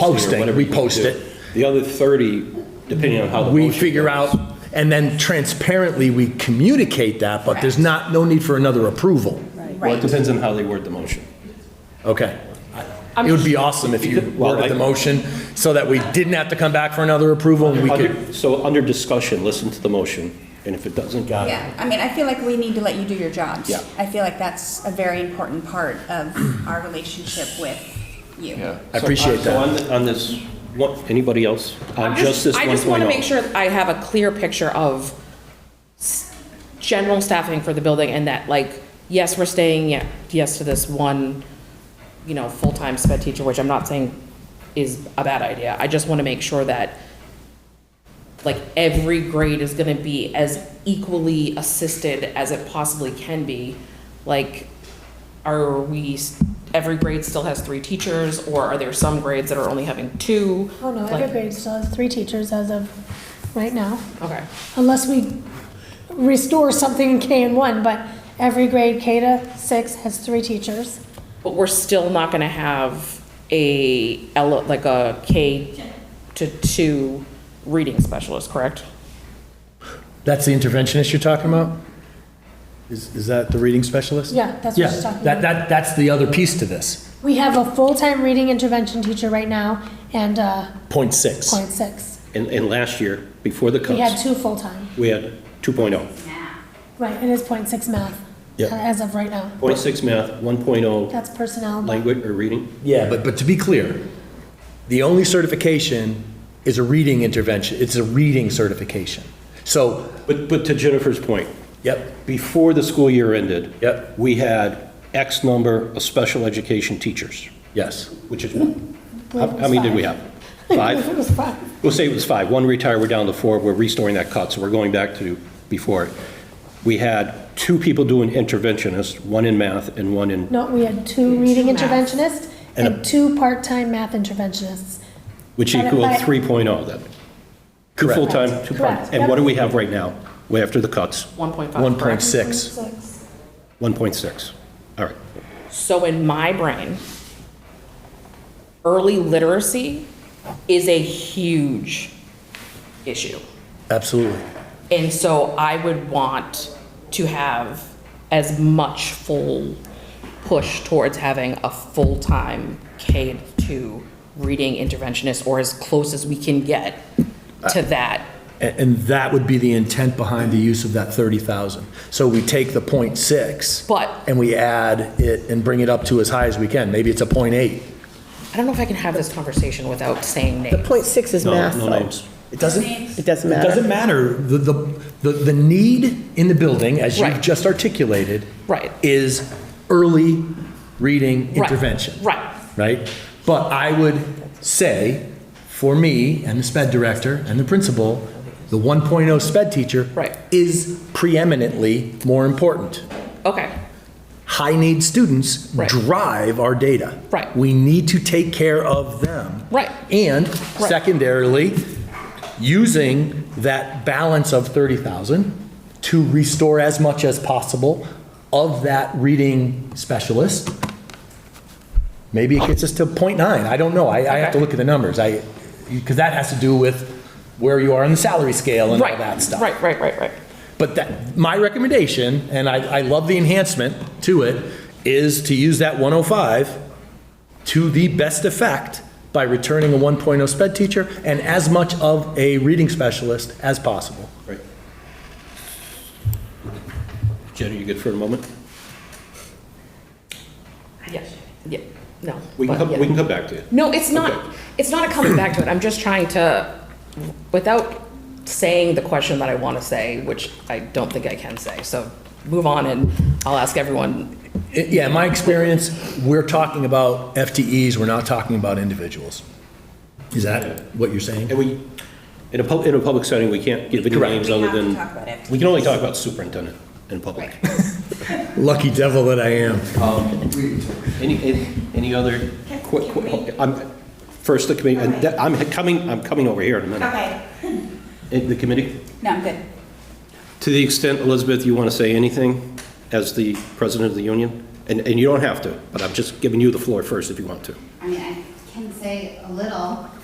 posting, whatever we you post do. it. The other 30, depending on how the We motion figure goes. out, and then transparently, we communicate that, but there's not, no need for another approval. Well, it Right. depends on how they word the motion. Okay. It would be awesome if you Well, worded the I- motion so that we didn't have to come back for another approval and we could, Under- So under discussion, listen to the motion, and if it doesn't, got it. Yeah, I mean, I feel like we need to let you do your jobs. Yeah. I feel like that's a very important part of our relationship with you. I appreciate So that. on the- on this, what, anybody else? On just this oh. 1.0? I just want to make sure I have a clear picture of s- general staffing for the building and that, like, yes, we're staying, ye- yes, to this one, you know, full-time sped teacher, which I'm not saying is a bad idea. I just want to make sure that, like, every grade is going to be as equally assisted as it possibly can be. Like, are we, s- every grade still has three teachers, or are there some grades that are only having two? Oh, no, Like- every grade still has three teachers as of right now, Okay. unless we restore something in K and one, but every grade K to six has three teachers. But we're still not gonna have a, ele- like a K to two reading specialist, correct? That's the interventionist you're talking about? Is, is that the reading specialist? Yeah, that's Yeah, what she's talking that, about. that, that's the other piece to this, We have a full-time reading intervention teacher right now and uh point six. point six. And, and last year, before the We had cuts, two full-time. we had oh. 2.0. Right, it is point six math uh, Yeah. as of right now. 0.6 math, 1.0 That's personnel. but- language or reading. Yeah, but, but to be clear, the only certification is a reading intervention, it's a reading certification. So, But, but to Jennifer's point, yep, before the school year ended. Yep. We had X number of special education teachers, yes. which is, how Well, it how many did was we five. have? Five? It was five. We'll say it was five. One retired, we're down to four. We're restoring that cut, so we're going back to before. We had two people doing interventionist, one in math and one in, No, we had two reading math. interventionists And a- and two part-time math interventionists. which But- equaled but- 3.0 then. Two Correct. full-time, two Correct. part-time. And what do we have right now, way after the cuts? One point five. One point six, Six. 1.6. All right. So in my brain, early literacy is a huge issue. absolutely. And so I would want to have as much full push towards having a full-time K to reading interventionist or as close as we can get to Uh, that. And, and that would be the intent behind the use of that 30,000. So we take the point six. But- And we add it and bring it up to as high as we can. Maybe it's a point eight. I don't know if I can have this conversation without saying names. Point six is No, math, no though. names. It doesn't, It doesn't it matter. doesn't matter. The, the, the, the need in the building, as you've Right. just articulated. Right. Is early reading intervention. Right. Right? But I would say, for me and the sped director and the principal, the 1.0 sped teacher. Right. Is preeminently more important. Okay, high-need students Right. drive our data. Right. We need to take care of them. Right. And Right. secondarily, using that balance of 30,000 to restore as much as possible of that reading specialist. Maybe it gets us to .9, I don't know, I, I have to Okay. look at the numbers, I, because that has to do with where you are on the salary scale and all right, that stuff. right, right, right, right. But that, my recommendation, and I, I love the enhancement to it, is to use that 105 to the best effect by returning a 1.0 sped teacher and as much of a reading specialist as possible. Right. Jenny, you good for a moment? Yeah, yeah, no. We can but come, yeah. we can come back to it. No, it's not, Okay. it's not a coming back to it. I'm just trying to, without saying the question that I want to say, which I don't think I can say. So move on and I'll ask everyone. I- Yeah, in my experience, we're talking about FTEs, we're not talking about individuals. Is that what you're saying? And we, in a, pub- in a public setting, we can't give any Correct. names We other have to than. talk about it. We can only talk about superintendent in public. Lucky devil that I am. Any, any- any other? que- que- I'm- First, the committee, and that- I'm coming, I'm coming over here in a minute. Okay, Eh, The committee, no, I'm good. to the extent, Elizabeth, you want to say anything as the president of the union? And, and you don't have to, but I'm just giving you the floor first if you want to. I mean, I can say say a little,